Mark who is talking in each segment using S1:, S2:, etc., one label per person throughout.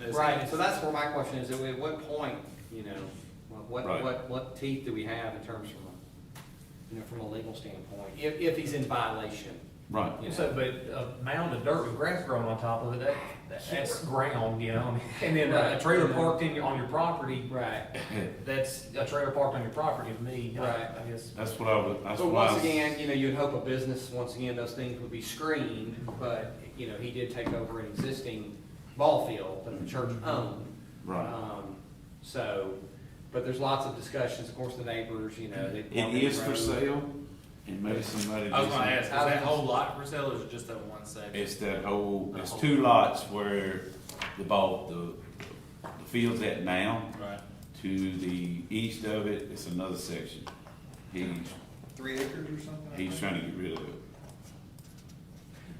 S1: As-
S2: Right, and so that's where my question is, at what point, you know, what,
S3: Right.
S2: what, what, what teeth do we have in terms from, a you know, from a legal standpoint, if, if he's in violation?
S3: Right.
S2: you know?
S4: So, but a mound of dirt with grass growing on top of it, that, that- that's ground, you know, and then
S1: uh,
S4: a trailer parked in, your- on your property,
S2: Right,
S4: that's a trailer parked on your property to me,
S2: Right.
S4: I I guess.
S3: That's what I would, that's
S2: so
S3: what I.
S2: once again, you know, you'd hope a business, once again, those things would be screened, but, you know, he did take over an existing ball field that the church owned.
S3: Mm-hmm. Right.
S2: Um, So, but there's lots of discussions, of course, the neighbors, you know, they.
S3: It is for sale and maybe somebody.
S1: I was
S3: just-
S1: gonna ask, is that whole lot for sale or is it just that one section?
S3: It's that whole, it's two lots where the ball, the, the field's at now.
S1: Right.
S3: To the east of it, it's another section. He's,
S5: Three acres or something? I
S3: he's
S5: think.
S3: trying to get rid of it.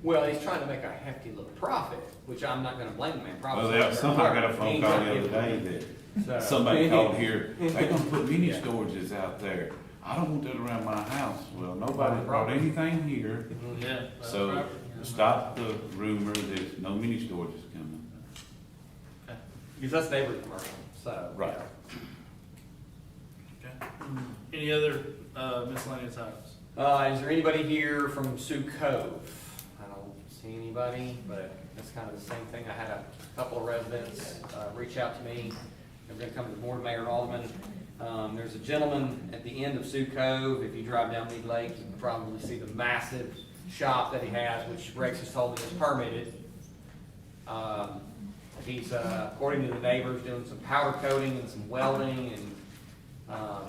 S2: Well, he's trying to make a hefty little profit, which I'm not gonna blame him, man,
S3: Well,
S2: probably.
S3: they- somehow I got a phone call the other day that somebody called here, they gonna put mini storages out there. I don't want that around my house. Well, nobody brought anything here.
S1: Yeah. that's
S3: So
S1: property, yeah.
S3: stop the rumor that no mini storage is coming.
S2: Because that's neighborhood commercial, so.
S3: Right.
S1: Okay. Any other uh, miscellaneous items?
S2: Uh, is there anybody here from Sioux Cove? I don't see anybody, but that's kind of the same thing. I had a couple of residents, uh, reach out to me. They're gonna come to the board, Mayor and Alderman. Um, there's a gentleman at the end of Sioux Cove. If you drive down Mead Lake, you can probably see the massive shop that he has, which Rex has told me is permitted. Um, he's, uh, according to the neighbors, doing some powder coating and some welding and, um,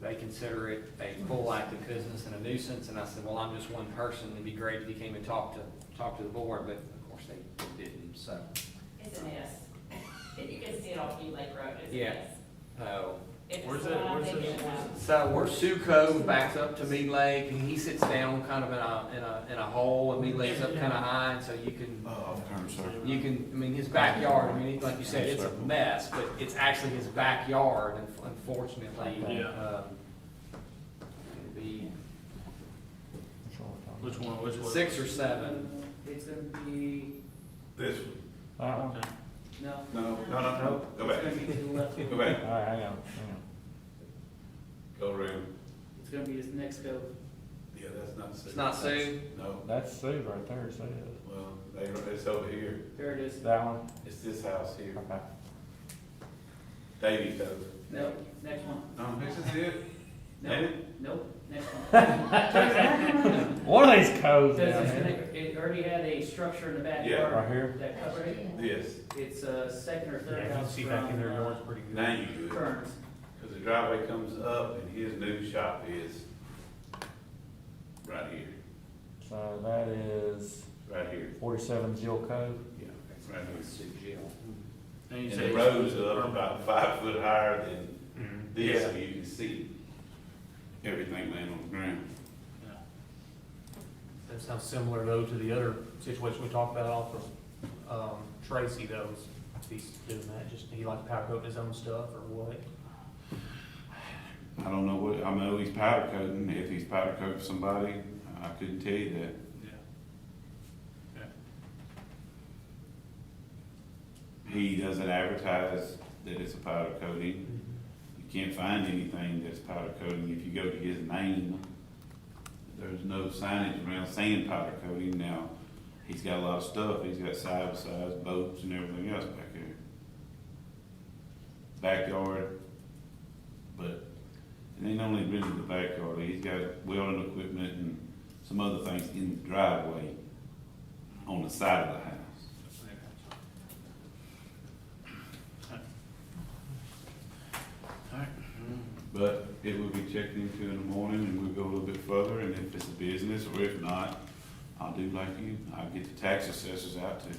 S2: they consider it a full active business and a nuisance, and I said, well, I'm just one person, it'd be great if you came and talked to, talked to the board, but of course they didn't, so.
S6: It's a mess. You can see it on Key Lake Road, it's a
S2: Yeah.
S6: mess.
S2: So,
S6: If it's
S1: Where's
S6: the
S1: that-
S6: one I'm
S1: where's that-
S6: thinking
S1: where's
S6: of.
S2: Oh. so where Sue Cove backs up to Mead Lake, and he sits down kind of in a, in a, in a hole, and Mead Lake's up kind of high, and so you can,
S3: Oh, I'm sorry.
S2: you can, I mean, his backyard, I mean, like you said, it's a mess, but it's actually his backyard, and unfortunately.
S1: Yeah.
S2: um, it'd be
S1: Which one, which one?
S2: Six or seven,
S7: It's gonna be,
S5: This one,
S1: Okay.
S7: no.
S5: no, no, no, no, go back,
S7: It's gonna be to the left.
S5: go back,
S4: right, hang on,
S5: go around.
S7: It's gonna be this next go.
S5: Yeah, that's not Sue.
S2: it's not Sue,
S5: No,
S4: That's Sue right there, Sue.
S5: well, they, it's over here,
S7: There it is.
S4: That one?
S5: it's this house here. Davy's over.
S7: No, next one.
S5: No, this is it.
S7: No,
S5: David?
S7: nope, next one.
S4: One of these codes
S7: Because it's gonna- it already had a structure in the
S5: Yeah,
S7: backyard
S4: here.
S7: that covered it.
S5: Yes,
S7: It's a second or
S4: Yeah,
S7: third
S4: you can
S7: house
S4: see back in there,
S7: from
S4: yours pretty good.
S5: now you do
S7: uh,
S5: it,
S7: Kearns.
S5: because the driveway comes up and his new shop is right here,
S4: So that is
S5: right here,
S4: forty-seven Jill Cove.
S5: yeah, right here.
S2: Sue Jill.
S1: And you
S5: And
S1: say
S5: the road's up about five foot higher than this,
S1: Yeah.
S5: so you can see everything laying on the ground.
S1: Yeah.
S4: That sounds similar though to the other situation we talked about off of, um, Tracy though, is if he's doing that, just, he like powder coating his own stuff or what?
S3: I don't know what, I know he's powder coating. If he's powder coating somebody, I couldn't tell you that.
S1: Yeah.
S3: He doesn't advertise that it's a powder coating. You can't find anything that's powder coating. If you go to his name, there's no signage around saying powder coating. Now, he's got a lot of stuff. He's got side by sides, boats and everything else back there. Backyard, but it ain't only really the backyard. He's got welding equipment and some other things in the driveway on the side of the house. But it will be checked into in the morning and we'll go a little bit further and if it's a business or if not, I'll do like you, I'll get the tax assessors out to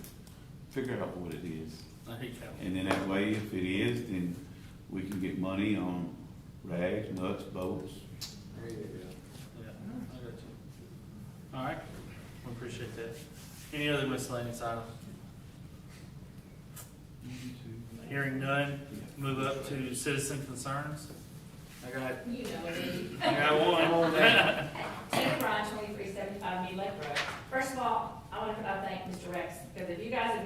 S3: figure out what it is.
S1: I hate that one.
S3: And then that way, if it is, then we can get money on rags, nuts, bolts.
S2: There you go.
S1: Yeah, I got you. All right, we appreciate that. Any other miscellaneous items? Hearing none, move up to citizen concerns. I got,
S6: You know me.
S1: I got one.
S6: Tina Ryan, twenty-three seventy-five Mead Lake Road. First of all, I want to come out and thank Mr. Rex, because if you guys had been